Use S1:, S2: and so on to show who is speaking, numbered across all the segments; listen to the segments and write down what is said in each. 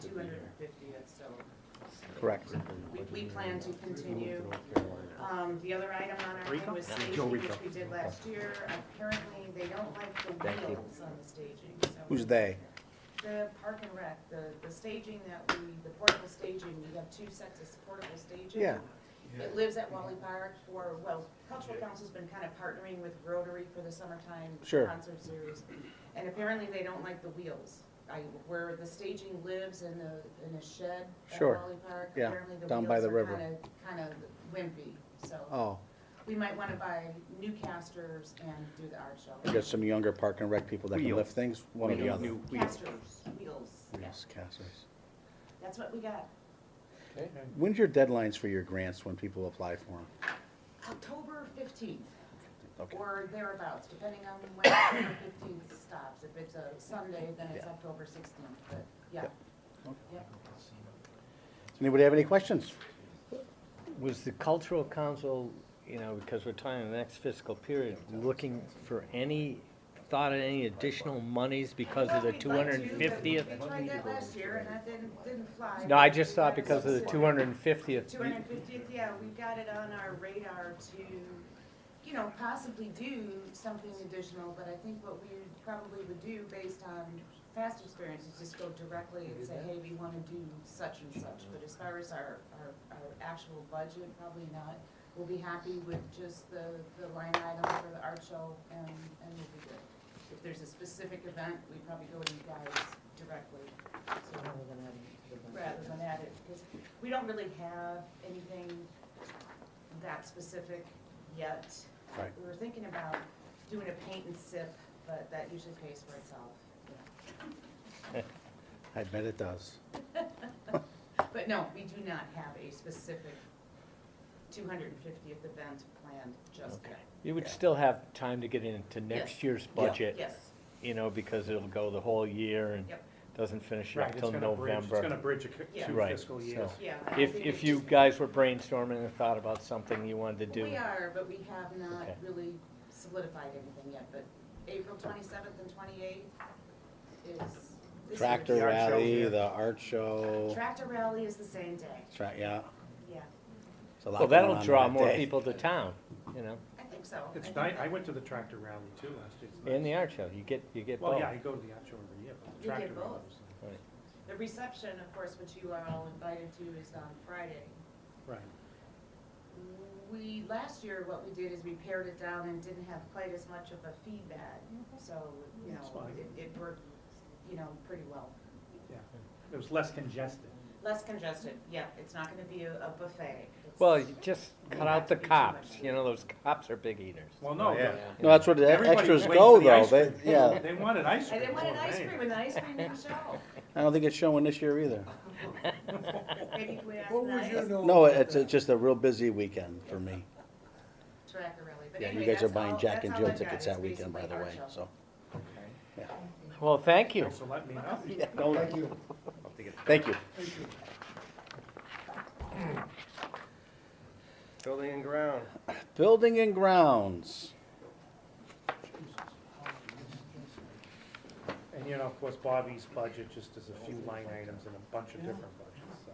S1: two hundred and fifty, that's still.
S2: Correct.
S1: We, we plan to continue. Um, the other item on our
S3: Rico?
S1: was
S3: Yeah.
S1: staging,
S3: Joe
S1: which
S3: Rico.
S1: we did last year. Apparently, they don't like the
S3: Thank you.
S1: wheels on the staging, so.
S2: Who's they?
S1: The park and rec, the, the staging that we, the portable staging, we have two sets of portable staging.
S2: Yeah.
S1: It lives at Wally Park for, well, Cultural Council's been kind of partnering with Rotary for the summertime
S2: Sure.
S1: concert series. And apparently they don't like the wheels. I, where the staging lives in the, in a shed at
S2: Sure.
S1: Wally Park.
S2: Yeah,
S1: apparently the
S2: down by
S1: wheels
S2: the
S1: are
S2: river.
S1: Kind of wimpy, so
S2: Oh,
S1: we might want to buy new casters and do the art
S2: we
S1: show.
S2: got some younger park and rec people that can
S3: Wheel.
S2: lift things, one or the
S1: Wheel.
S2: other.
S3: New wheel.
S1: Casters, wheels, yeah,
S2: Yes, Cassie's.
S1: that's what we got.
S2: When's your deadlines for your grants when people apply for them?
S1: October fifteenth.
S2: Okay,
S1: or thereabouts, depending on when October fifteenth stops. If it's a Sunday, then it's
S2: Yeah.
S1: October sixteenth, but, yeah.
S2: Yep.
S1: Yep.
S2: Does anybody have any questions?
S3: Was the cultural council, you know, because we're talking the next fiscal period, looking for any, thought of any additional monies because of
S1: Well,
S3: Oh, the
S1: we'd
S3: two
S1: like
S3: hundred
S1: to,
S3: and
S1: but
S3: fiftieth?
S1: We tried that last year and that didn't, didn't fly.
S3: No, I just thought because of the two hundred and fiftieth.
S1: Two hundred and fiftieth, yeah, we got it on our radar to, you know, possibly do something additional, but I think what we probably would do based on past experience is just go directly and say, hey, we wanna do such and such, but as far as our, our, our actual budget, probably not. We'll be happy with just the, the line item for the art show and, and we'll be good. If there's a specific event, we probably go to you guys directly, so
S4: rather than adding it to the budget.
S1: rather than add it, because we don't really have anything that specific yet.
S2: Right.
S1: We were thinking about doing a paint and sip, but that usually pays for itself.
S2: I bet it does.
S1: But no, we do not have a specific two hundred and fiftieth event planned just yet.
S3: You would still have time to get into next
S1: Yes.
S3: year's
S2: Yeah.
S3: budget,
S1: Yes,
S3: you know, because it'll go the whole year and
S1: Yep.
S3: doesn't finish
S5: Right,
S3: up
S5: it's
S3: till
S5: gonna bridge,
S3: November.
S5: it's gonna bridge a c-
S1: Yeah.
S5: two
S3: Right,
S5: fiscal years.
S3: so-
S1: yeah. I
S3: If,
S1: think
S3: if
S1: it's
S3: you
S1: just-
S3: guys were brainstorming and thought about something you wanted to do.
S1: We are, but we have not
S3: Okay.
S1: really solidified anything yet, but April twenty-seventh and twenty-eighth is. this year's-
S2: Tractor
S5: The art show's
S2: rally,
S5: here.
S2: the art show,
S1: Tractor rally is the same day,
S2: tra- yeah.
S1: yeah,
S2: it's a lot
S3: Well,
S2: going
S3: that'll
S2: on
S3: draw
S2: that
S3: more
S2: day.
S3: people to town, you know,
S1: I think so. I
S5: It's
S1: think
S5: nice,
S1: that-
S5: I went to the tractor rally too last year. It's
S3: in the
S5: nice.
S3: art show, you get, you get both.
S5: Well, yeah, I go to the art show every year, but
S1: You
S5: the tractor
S1: get
S5: rally
S1: both.
S5: was nice.
S3: Right.
S1: The reception, of course, which you are all invited to, is on Friday.
S5: Right,
S1: We, last year, what we did is we pared it down and didn't have quite as much of a feedback, so, you
S5: That's
S1: know,
S5: fine.
S1: it, it worked, you know, pretty well.
S5: yeah. It was less congested.
S1: Less congested, yeah, it's not gonna be a a buffet. It's-
S3: Well, you just
S1: Yeah.
S3: cut out the cops, you know, those cops are big eaters.
S5: Well, no,
S3: You
S5: the-
S2: No, that's where the
S5: everybody
S2: extras
S5: was waiting for
S2: go
S5: the
S2: though,
S5: ice
S2: they,
S5: cream.
S2: yeah,
S5: They wanted ice
S1: I
S5: cream.
S1: didn't want an
S5: more than
S1: ice cream,
S5: anything.
S1: and the ice cream didn't show.
S2: I don't think it's showing this year either.
S1: Maybe if we asked
S6: What was
S1: nice
S6: your note?
S2: No, it's, it's just a real busy weekend for me.
S1: tracker rally, but
S2: Yeah, you
S1: anyway,
S2: guys are
S1: that's
S2: buying
S1: all-
S2: Jack
S1: that's
S2: and
S1: all
S2: Jill
S1: I've got.
S2: tickets
S1: It's
S2: that weekend, by
S1: basically
S2: the
S1: our
S2: way,
S1: show.
S2: so.
S3: Well, thank you.
S5: Thanks for letting me know.
S6: Thank you.
S2: Thank you.
S7: Building and ground.
S2: Building and grounds.
S5: And you know, of course, Bobby's budget just is a few line items and a bunch of different budgets, so.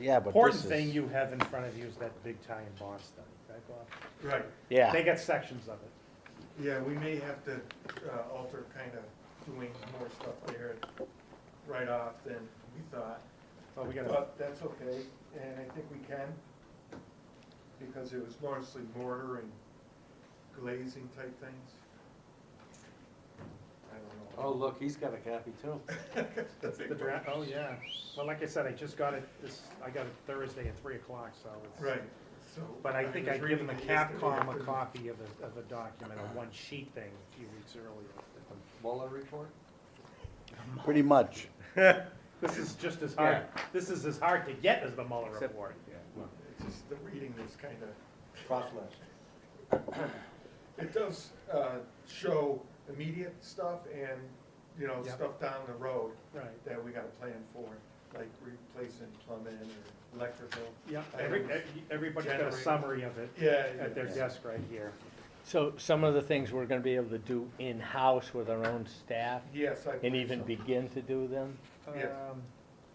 S2: Yeah, but this
S5: Important
S2: is.
S5: thing you have in front of you is that big tie and bond study, right, Bob?
S6: Right,
S5: They
S2: Yeah,
S5: got sections of it.
S6: yeah, we may have to uh, alter kind of doing more stuff there right off than we thought.
S5: Oh, we gotta,
S6: But that's okay, and I think we can, because it was mostly mortar and glazing type things. I don't know.
S7: Oh, look, he's got a copy too.
S6: That's
S5: the draft, oh, yeah. Well, like I said, I just got it this, I got it Thursday at three o'clock, so it's.
S6: Right, so.
S5: But I think
S6: was
S5: I would
S6: reading
S5: given the
S6: it yesterday.
S5: Capcom a copy of a, of a document, a one-sheet thing a few weeks earlier.
S7: Mueller report?
S2: pretty much.
S5: This is just as hard, this is as hard to get as the Mueller
S7: Except-
S5: report.
S6: It's just the reading is kind of.
S7: Crosswatch.
S6: It does uh, show immediate stuff and, you know,
S5: Yep.
S6: stuff down the road
S5: Right,
S6: that we gotta plan for, like replacing plumbing or electrical.
S5: yeah, every,
S6: Items.
S5: everybody's got a
S6: Generator.
S5: summary of it
S6: Yeah.
S5: at their desk right here.
S3: So some of the things we're gonna be able to do in-house with our own staff
S6: Yes, I.
S3: and
S6: believe
S3: even
S6: so.
S3: begin to do them?
S6: Yes.
S5: Um,